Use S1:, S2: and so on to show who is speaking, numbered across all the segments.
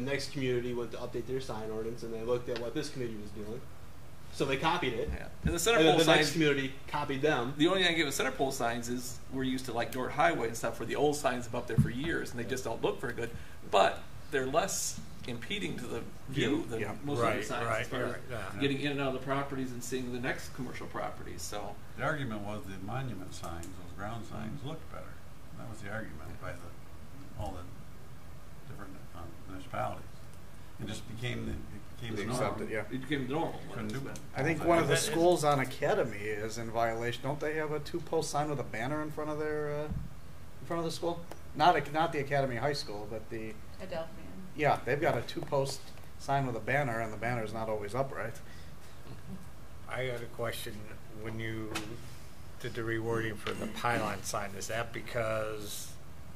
S1: The next community went to update their sign ordinance, and they looked at what this community was doing, so they copied it.
S2: Yeah. And the center
S1: And then
S2: pole
S1: the next
S2: signs.
S1: community copied them.
S2: The only thing I give with center pole signs is we're used to like Dort Highway and stuff where the old signs have up there for years and they just don't look very good, but they're less impeding to the view than
S3: Yeah.
S2: most of
S3: Right,
S2: the signs as
S3: right,
S2: far as
S3: right, yeah.
S2: getting in and out of the properties and seeing the next commercial properties. So
S4: The argument was the monument signs, those ground
S3: Mm-hmm.
S4: signs, looked better. That was the argument by the, all the different um, municipalities. It just became, the it became
S3: They
S4: the norm.
S3: accepted, yeah.
S2: it became normal.
S4: Couldn't do it.
S3: I
S2: Uh,
S3: think one of the
S5: That is-
S3: schools on Academy is in violation. Don't they have a two-post sign with a banner in front of their, uh, in front of the school? Not, ac- not the Academy High School, but the,
S6: Adelphian.
S3: yeah, they've got a two-post sign with a banner, and the banner's not always upright.
S5: I got a question. When you did the rewording for the pylon sign, is that because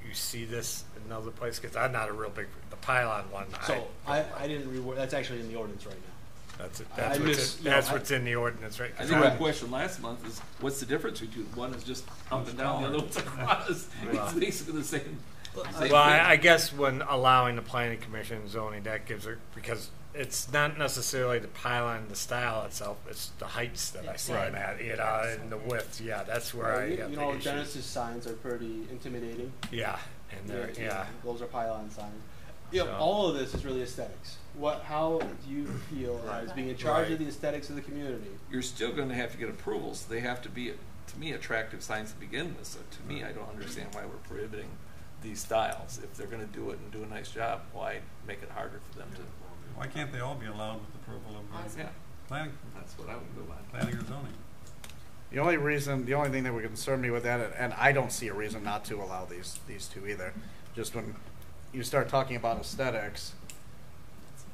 S5: you see this in another place? Because I'm not a real big, the pylon one, I,
S1: So I, I didn't reward. That's actually in the ordinance right now.
S5: that's, it-
S1: I-
S5: that's
S1: I
S5: what's,
S1: miss-
S5: in-
S1: no,
S5: that's
S1: I-
S5: what's in the ordinance, right?
S2: I
S5: 'Cause
S2: think my
S1: Correct.
S2: question last month is what's the difference between one is just up and down, the other one's across?
S5: Well.
S2: It's basically the same. same
S5: Well, I, I
S2: thing.
S5: guess when allowing the planning commission and zoning, that gives it, because it's not necessarily the pylon, the style itself, it's the heights that I see
S3: Right.
S5: them at, you know, and the width, yeah, that's where I
S1: you,
S5: got
S1: you
S5: the
S1: know,
S5: issues.
S1: Genesis signs are pretty intimidating.
S5: Yeah, and they're,
S1: They're-
S5: yeah.
S1: Those are pylon signs. Yeah,
S5: So-
S1: all of this is really aesthetics. What, how do you feel
S5: Right.
S1: as being in charge
S5: Right.
S1: of the aesthetics of the community?
S2: you're still going to have to get approvals. They have to be, to me, attractive signs to begin with. So to me, I don't understand why we're prohibiting these styles. If they're going to do it and do a nice job, why make it harder for them to?
S4: Why can't they all be allowed with approval of the
S2: Yeah,
S4: planning,
S2: that's what I would go by.
S4: planning or zoning?
S3: The only reason, the only thing that would concern me with that, and- and I don't see a reason not to allow these, these two either, just when you start talking about aesthetics,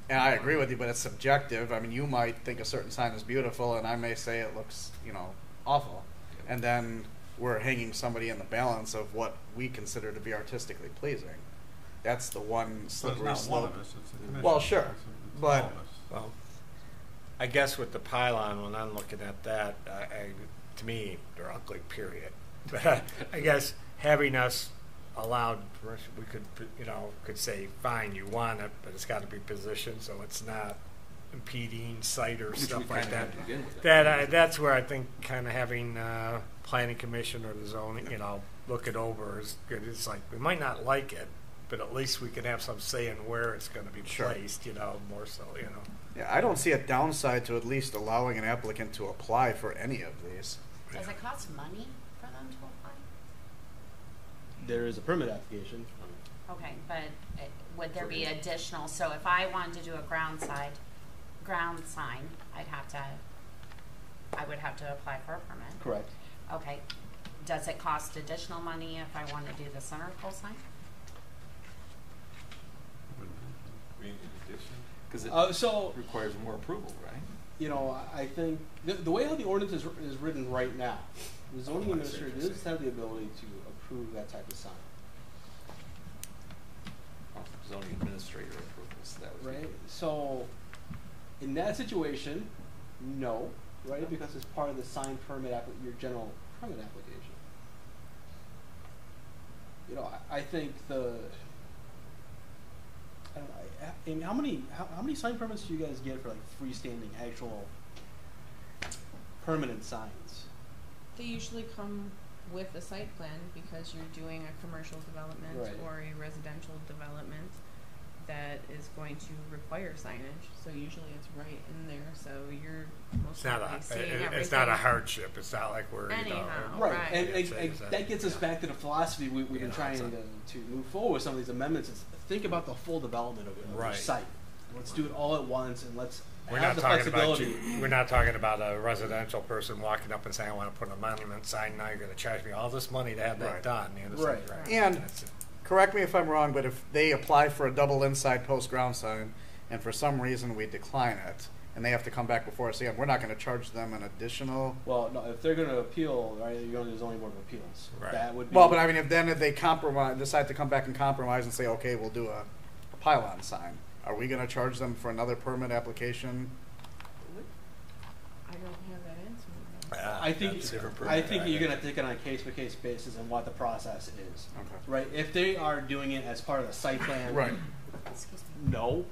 S3: and I agree with you, but it's subjective. I mean, you might think a certain sign is beautiful, and I may say it looks, you know, awful. And then we're hanging somebody in the balance of what we consider to be artistically pleasing. That's the one
S4: So it's
S3: slippery
S4: not one
S3: slope.
S4: of us, it's the commission.
S3: Well, sure,
S4: It's- it's
S3: but-
S4: all of us.
S5: Well, I guess with the pylon, when I'm looking at that, I, I, to me, they're ugly, period. But I guess having us allowed, permission, we could, you know, could say, fine, you want it, but it's got to be positioned so it's not impeding sight or
S2: Which we
S5: stuff
S2: kinda
S5: like that.
S2: have to begin with.
S5: That I, that's where I think kind of having uh, planning commission or the zoning, you know, look it over is good. It's like we might not like it, but at least we can have some say in where it's going to be
S3: Sure.
S5: placed. You know, more so. You know.
S3: Yeah, I don't see a downside to at least allowing an applicant to apply for any of these.
S6: Does it cost money for them to apply?
S1: There is a permit application.
S6: Okay, but uh, would there be additional, so if I wanted to do a ground side, ground sign, I'd have to, I would have to apply for a permit.
S1: Correct.
S6: Okay, does it cost additional money if I want to do the center pole sign?
S2: Because it
S1: Uh, so
S2: requires more approval, right?
S1: you know, I- I think the, the way how the ordinance is, is written right now, the zoning
S5: Oh, I see what
S1: administrator
S5: you're
S1: does
S5: saying.
S1: have the ability to approve that type of sign,
S2: Zoning administrator approvals, that would be.
S1: right? So, in that situation, no, right? Because it's part of the sign permit, appli- your general permit application. You know, I, I think the, I don't know, I- Amy, how many, how, how many sign permits do you guys get for like freestanding actual permanent signs?
S7: They usually come with a site plan because you're doing a commercial development
S1: Right.
S7: or a residential development that is going to require signage. So usually it's right in there, so you're most
S5: It's not
S7: likely
S5: a,
S7: seeing
S5: it-
S7: everything.
S5: it's not a hardship. It's not like we're, you know.
S7: Anyhow.
S1: Right,
S7: Right.
S1: and, and,
S5: Yeah,
S1: and
S5: so-
S1: that gets us back to the philosophy we, we've
S5: Yeah,
S1: been trying
S5: it's
S1: to,
S5: a-
S1: to move forward with some of these amendments. Is think about the full development of, of your
S5: Right.
S1: site. Let's do it all at once, and let's
S5: We're
S1: have
S5: not
S1: the
S5: talking about
S1: flexibility.
S5: you, we're not talking about a residential person walking up and saying, I want to put a monument sign, now you're going to charge me all this money to have
S3: Right.
S5: that done. You know, it's
S1: Right.
S5: like, right,
S3: And-
S5: that's it.
S3: correct me if I'm wrong, but if they apply for a double inside post ground sign and for some reason we decline it and they have to come back before us again, we're not going to charge them an additional.
S1: Well, no, if they're going to appeal, right, you're going to the zoning board of appeals.
S5: Right.
S1: That would be
S3: Well, but I mean, if then if they compromise, decide to come back and compromise and say, okay, we'll do a, a pylon sign, are we going to charge them for another permit application?
S7: I don't have that answer. though.
S1: I think
S5: That's a different
S1: I
S5: program.
S1: think you're going to take it on a case by case basis and what the process is.
S3: Okay.
S1: Right, if they are doing it as part of the site plan,
S3: Right.
S6: Excuse me.
S1: No,